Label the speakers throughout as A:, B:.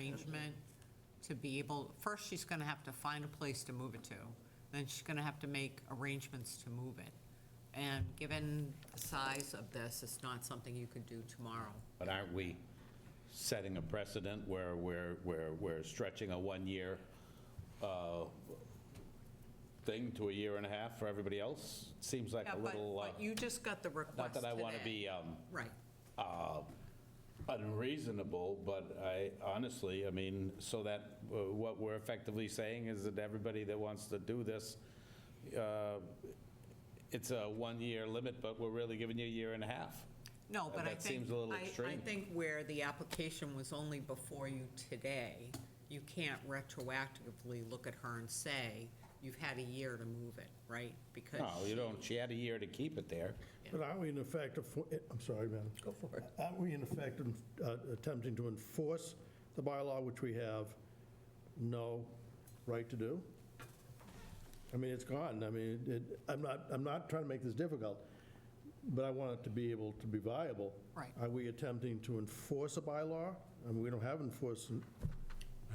A: arrangement to be able, first, she's going to have to find a place to move it to, then she's going to have to make arrangements to move it. And given the size of this, it's not something you could do tomorrow.
B: But aren't we setting a precedent where we're, we're, we're stretching a one-year uh, thing to a year and a half for everybody else? Seems like
A: Yeah,
B: a
A: but-
B: little, uh,
A: But you just got the request
B: not that I want to
A: today.
B: be um,
A: Right.
B: unreasonable, but I, honestly, I mean, so that, uh, what we're effectively saying is that everybody that wants to do this, uh, it's a one-year limit, but we're really giving you a year and a half.
A: No, but I think.
B: That seems a little
A: I- I
B: extreme.
A: think where the application was only before you today, you can't retroactively look at her and say, you've had a year to move it, right? Because.
B: No, you don't, she had a year to keep it there.
C: But aren't we in effect, affo- I'm sorry, man. Go for it. Aren't we in effect en- uh, attempting to enforce the bylaw which we have no right to do? I mean, it's gone. I mean, it- I'm not, I'm not trying to make this difficult, but I want it to be able to be viable.
A: Right.
C: Are we attempting to enforce a bylaw? I mean, we don't have enforcement.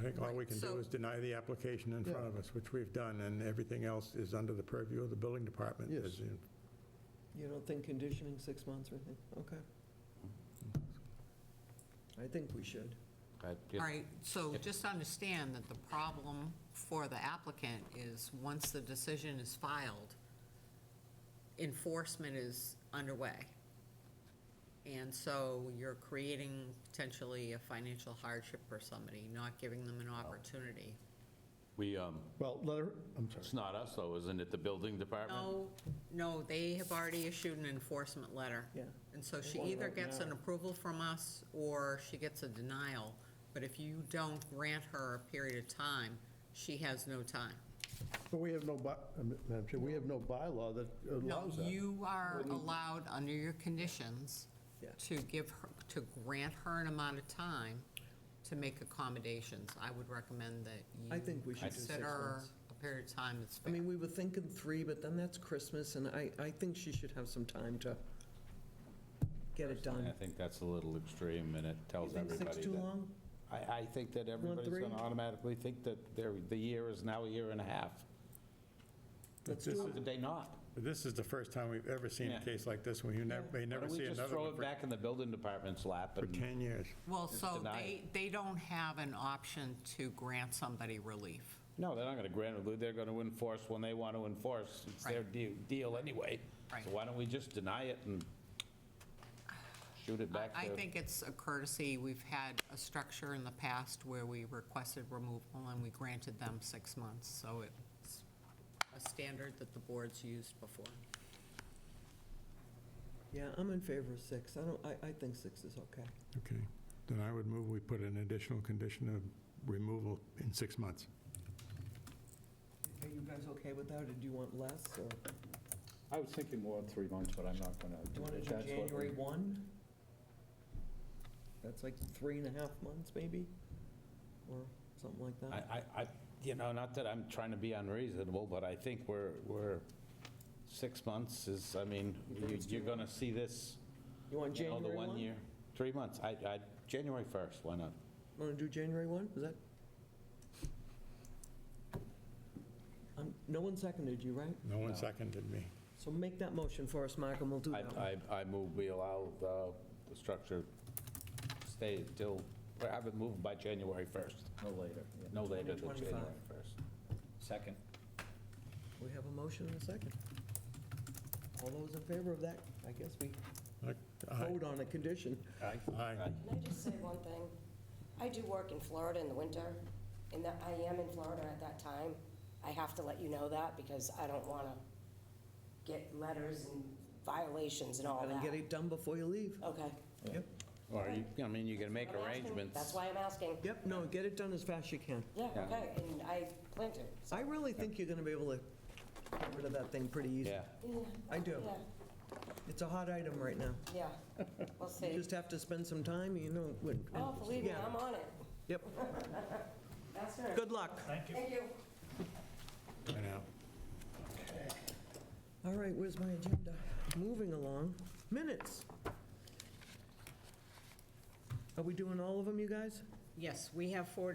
D: I think all we can
A: Right, so-
D: do is deny the application in front of us, which we've done, and everything else is under the purview of the building department.
C: Yes.
D: As you-
E: You don't think conditioning six months or anything? Okay. I think we should.
B: All
A: All right, so just understand that the problem for the applicant is, once the decision is filed, enforcement is underway. And so you're creating potentially a financial hardship for somebody, not giving them an opportunity.
B: We, um,
C: Well, let her, I'm sorry.
B: it's not us though, isn't it, the building department?
A: No, no, they have already issued an enforcement letter.
E: Yeah.
A: And so she
E: One
A: either
E: right
A: gets an
E: now.
A: approval from us, or she gets a denial. But if you don't grant her a period of time, she has no time.
C: But we have no, by- Madam Chair, we have no bylaw that
A: No,
C: allows that.
A: you are allowed, under your conditions,
E: Yeah.
A: to give her, to grant her an amount of time to make accommodations. I would recommend that you.
E: I think we should do six
A: Consider
E: months.
A: a period of time that's
E: I mean,
A: fair.
E: we were thinking three, but then that's Christmas, and I, I think she should have some time to get it
B: I
E: done.
B: think that's a little extreme, and it
E: You
B: tells
E: think
B: everybody that.
E: six too long?
B: I, I think that everybody's
E: three?
B: going to automatically think that their, the year is now a year and a half.
E: Let's
D: This
E: do
B: How
E: it.
B: could they not?
D: But This is the first time we've ever seen a
B: Yeah.
D: case like this, when you never, may
B: Why
D: never
B: don't
D: see
B: we just
D: another
B: throw
D: one
B: it
D: for-
B: back in the building department's lap?
D: for
B: and-
D: 10 years.
A: Well, so
B: deny
A: they, they don't have an option to grant somebody relief.
B: No, they're not going to grant it, they're going to enforce when they want to enforce. It's their
A: Right.
B: de- deal anyway.
A: Right.
B: So why don't we just deny it and shoot it back to...
A: I I think it's a courtesy. We've had a structure in the past where we requested removal and we granted them six months. So it's a standard that the board's used before.
E: Yeah, I'm in favor of six. I don't, I, I think six is okay.
D: Okay. Then I would move we put an additional condition of removal in six months.
E: Are you guys okay with that, or do you want less, or do
F: I was thinking more than three months, but I'm not going to.
E: you want to do January 1? That's like three and a half months, maybe, or something like
B: I,
G: Uh,
E: that.
B: I, I- you know, not that I'm trying to be unreasonable, but I think we're, we're, six months is, I mean, you- you're going to see this,
E: You want
B: you know, the
E: January 1?
B: one year. Three months, I, I, January 1st, why not?
E: Want to do January 1? Is that? Um, No one seconded you, right?
D: No one seconded me.
E: So make that motion for us, Mark, and we'll do
F: Hmm.
B: I,
E: that. one.
B: I, I move we allow the, the structure stay till, or have it moved by January 1st,
F: No later. yeah.
B: no later than
E: 2025.
B: January 1st.
F: Second.
E: We have a motion and a second. All those in favor of that, I guess we
D: Aye.
E: vote on a condition.
D: Aye.
G: Can I just say one thing? I do work in Florida in the winter, and that I am in Florida at that time. I have to let you know that because I don't want to get letters and violations and all
E: And
G: that.
E: get it done before you leave.
G: Okay.
E: Yep.
B: Or, you- I mean, you can make
G: I'm asking.
B: arrangements.
G: That's why I'm asking.
E: Yep, no, get it done as fast as you can.
G: Yeah, okay, and I plan to. so-
E: I really think you're going to be able to get rid of that thing pretty easy.
B: Yeah.
E: I do.
G: Yeah,
E: It's a hot item right now.
G: yeah,
E: You
G: we'll see.
E: just have to spend some time, you know. when-
G: Oh, believe me,
E: Yeah.
G: I'm on it.
E: Yep.
G: That's her.
E: Good luck.
G: Thank you.
D: I know.
E: All right, where's my agenda? Moving along, minutes. Are we doing all of them, you guys?
A: Yes, we have four